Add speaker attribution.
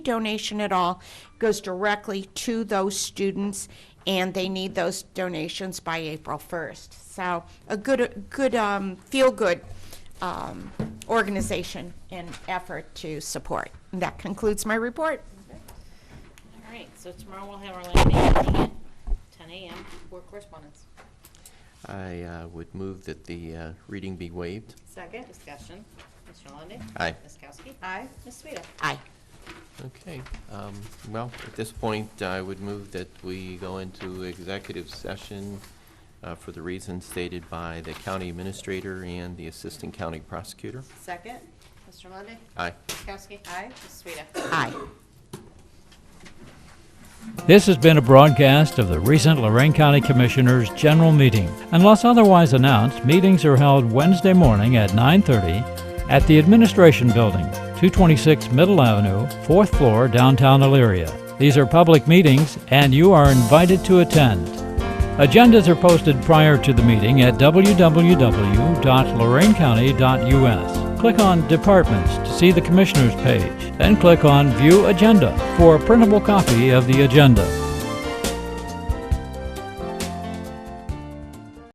Speaker 1: donation at all goes directly to those students, and they need those donations by April 1st. So a good, good, um, feel-good um, organization and effort to support. And that concludes my report.
Speaker 2: All right, so tomorrow we'll have our land bank meeting at ten AM for correspondence.
Speaker 3: I uh, would move that the uh, reading be waived.
Speaker 4: Second,
Speaker 2: Discussion, Mr. Lundy.
Speaker 3: Aye.
Speaker 2: Ms. Kowski.
Speaker 4: aye,
Speaker 2: Ms. Sueda.
Speaker 1: Aye.
Speaker 3: Okay, um, well, at this point, I would move that we go into executive session uh, for the reasons stated by the county administrator and the assistant county prosecutor.
Speaker 4: second,
Speaker 2: Mr. Lundy.
Speaker 3: Aye.
Speaker 2: Ms. Kowski.
Speaker 4: Aye.
Speaker 2: Ms. Sueda.
Speaker 1: Aye.
Speaker 5: This has been a broadcast of the recent Lorraine County Commissioners' General Meeting. Unless otherwise announced, meetings are held Wednesday morning at 9:30 at the Administration Building, 226 Middle Avenue, 4th floor, downtown Elyria. These are public meetings and you are invited to attend. Agendas are posted prior to the meeting at www.lorainecounty.us. Click on Departments to see the Commissioners page, then click on View Agenda for a printable copy of the agenda.